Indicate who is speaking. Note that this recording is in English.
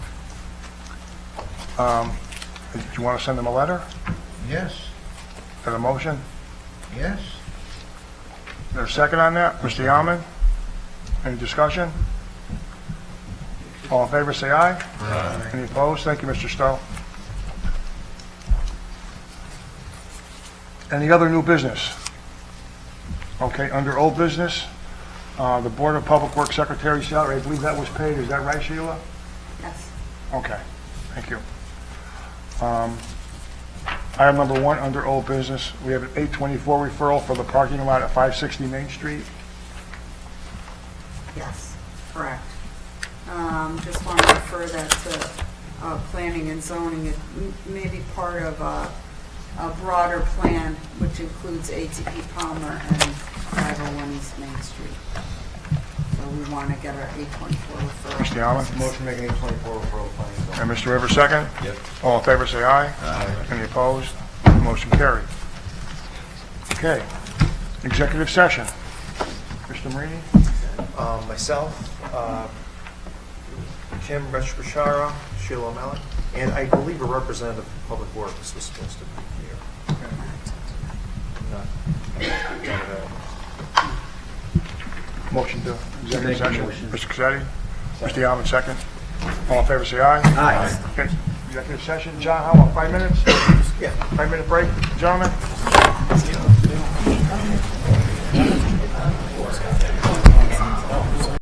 Speaker 1: Um, Do you want to send them a letter?
Speaker 2: Yes,
Speaker 1: Is that a motion?
Speaker 2: yes.
Speaker 1: Is there a second on that? Mr. Yaman? Any discussion? All in favor, say aye. Any opposed? Thank you, Mr. Stowe. Any other new business? Okay, under old business, uh, the Board of Public Works Secretary salary, I believe that was paid, is that right, Sheila?
Speaker 3: Yes.
Speaker 1: Okay, thank you. Um, Item number one, under old business, we have an 824 referral for the parking lot at 560 Main Street.
Speaker 3: Yes, correct. Um, Just want to refer that to uh, planning and zoning. It m- may be part of a a broader plan, which includes ATP Palmer and 501 East Main Street. So we want to get our 824 referral.
Speaker 1: Mr. Allen?
Speaker 2: Motion making eight twenty-four referral to planning and zoning.
Speaker 1: And Mr. Rivers, second?
Speaker 2: Yep.
Speaker 1: All in favor, say aye.
Speaker 2: Aye.
Speaker 1: Any opposed? Motion carried. Okay, executive session. Mr. Marini?
Speaker 4: Um, Myself, uh, Kim Reshbashara, Sheila O'Malley, and I believe a representative of Public Works was supposed to be here. Not- not available.
Speaker 1: Motion to executive
Speaker 2: Make a
Speaker 1: session.
Speaker 2: motion.
Speaker 1: Mr. Cassetti? Mr. Allen, second? All in favor, say aye.
Speaker 2: Aye.
Speaker 1: Okay, executive session, John, how about five minutes?
Speaker 4: Yeah.
Speaker 1: Five-minute break, gentlemen?